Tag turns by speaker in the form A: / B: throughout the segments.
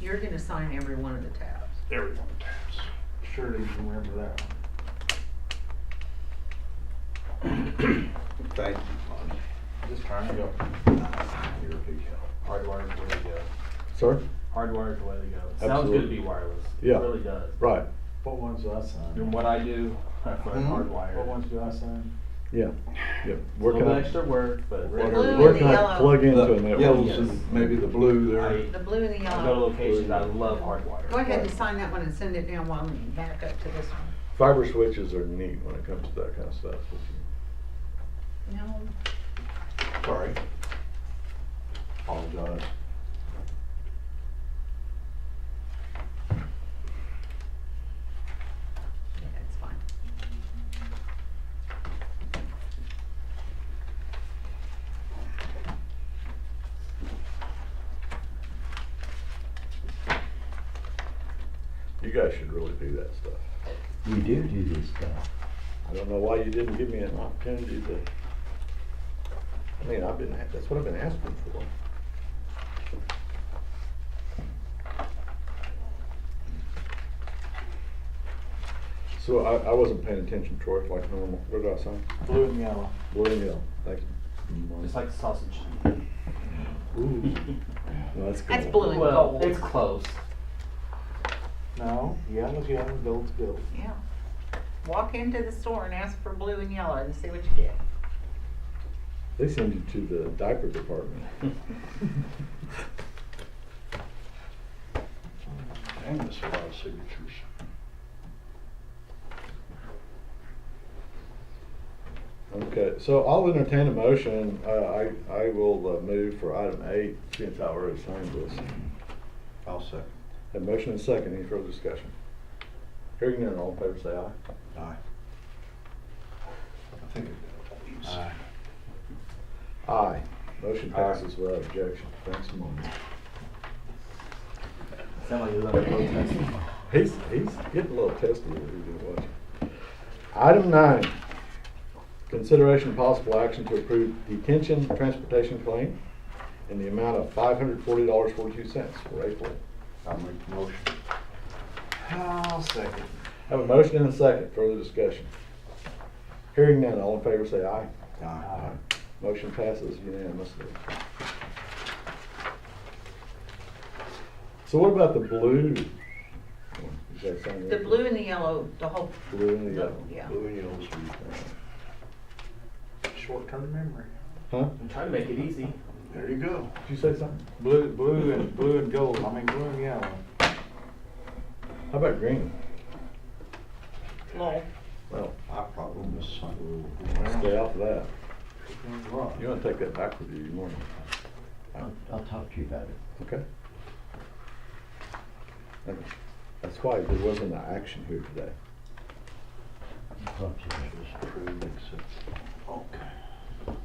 A: you're gonna sign every one of the tabs.
B: There we go, tabs. Surely you can remember that one.
C: Thank you, Lonnie.
B: Just trying to go.
C: You're a big help.
B: Hardwired's the way to go.
D: Sorry?
B: Hardwired's the way to go. It Sounds good to
D: Absolutely.
B: be wireless.
D: Yeah.
B: It really does.
D: Right,
E: What ones do I sign?
B: And what I do, I put
F: Mm-hmm.
C: Mhm.
B: hardwired.
E: What ones do I sign?
D: yeah,
B: A
D: yeah.
B: little
D: Working
B: bit
D: on,
B: extra work, but
A: The
B: really.
A: blue and
D: working
A: the
D: on
A: yellow.
D: plug into a
C: The
D: network.
C: yellows and maybe the blue there.
B: I
A: The blue and the
B: I go to
A: yellow.
B: locations, I love hardwired.
A: Go ahead and sign that one and send it down while I'm back up to this one.
D: Fiber switches are neat when it comes to that kind of stuff. If
A: No,
C: Sorry. Apologize.
A: yeah, it's fine.
D: You you guys should really do that stuff.
G: We do do this stuff.
D: I don't know why you didn't give me an opportunity to. I mean, I've been, that's what I've been asking for. So I, I wasn't paying attention, Troy, like normal. What did I sign?
B: Blue and yellow.
D: Blue and yellow, thank you.
B: Just like the sausage.
D: Ooh, that's cool.
A: That's blue. Really
B: Well,
A: cold.
B: it's close.
E: No, yellow's yellow, gold's gold.
A: Yeah. Walk into the store and ask for blue and yellow and see what you get.
D: They send you to the diaper department.
C: Damn, that's a lot of signatures.
D: Okay, so I'll entertain a motion. Uh, I, I will uh, move for item eight, since I already signed this.
C: I'll second.
D: A motion and second, any further discussion? Hearing none, all in favor say aye.
C: Aye. I think it does.
D: Aye. Aye. Motion
C: Aye.
D: passes without objection. Thanks, Monty.
B: Sound like you love protesting.
D: He's, he's getting a little testy over here, just watch. Item nine, consideration of possible action to approve detention transportation claim in the amount of five hundred forty dollars forty-two cents for April.
C: I'll make the motion.
B: I'll second.
D: Have a motion and a second, further discussion. Hearing none, all in favor say aye.
C: Aye.
D: Motion passes unanimously. So what about the blue? Is that something?
A: The blue and the yellow, the whole,
D: Blue and the
A: the-
D: yellow.
A: yeah.
C: Blue and yellow's the
E: Short-term memory.
D: Huh?
B: I'm trying to make it easy.
C: There you go.
D: Did you say something?
E: Blue, blue and, blue and gold, I mean, blue and yellow.
D: How about green?
A: little
D: Well,
C: I probably missed something.
D: stay out of that.
E: Depends what.
D: You wanna take that back with you, you want,
G: I'll, I'll talk to you about it.
D: okay? Okay. That's why there wasn't an action here today.
G: I'll talk to you about it.
C: Just approved, accept. Okay.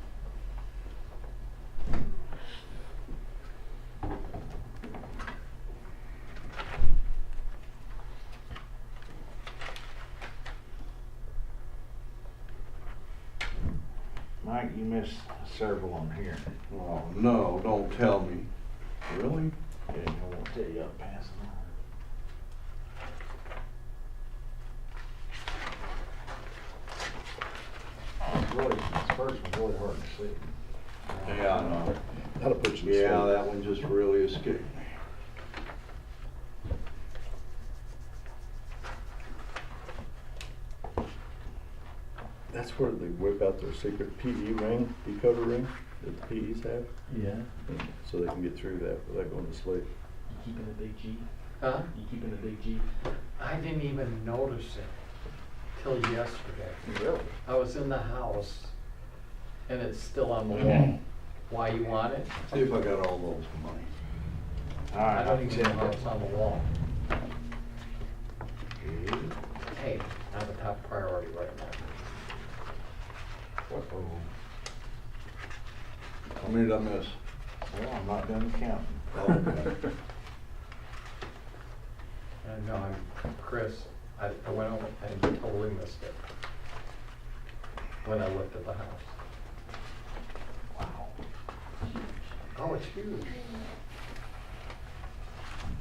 E: Mike, you missed several on here.
C: Oh, no, don't tell me. Really?
E: Yeah, I won't tell you, I'll pass them on. Really, Oh, this first one's really hard to see.
C: Yeah, I know.
D: That'll put you to sleep.
C: Yeah, that one just really escaped me.
D: That's where they whip out their secret PE ring, decoder ring, that the PEs have,
G: Yeah.
D: and so they can get through that without going to sleep.
B: You keeping a big G?
F: Huh?
B: You keeping a big G?
F: I didn't even notice it till yesterday.
B: Really?
F: I was in the house and it's still on the wall. Why you want it?
C: See if I got all those money.
E: All right.
F: I don't even know it's on the wall. Hey, I'm a top priority right now.
E: Well,
C: How many did I miss?
E: I'm not done counting.
C: Oh, okay.
F: I know, I'm, Chris, I, I went over and totally missed it when I looked at the house. Wow. Oh, it's huge.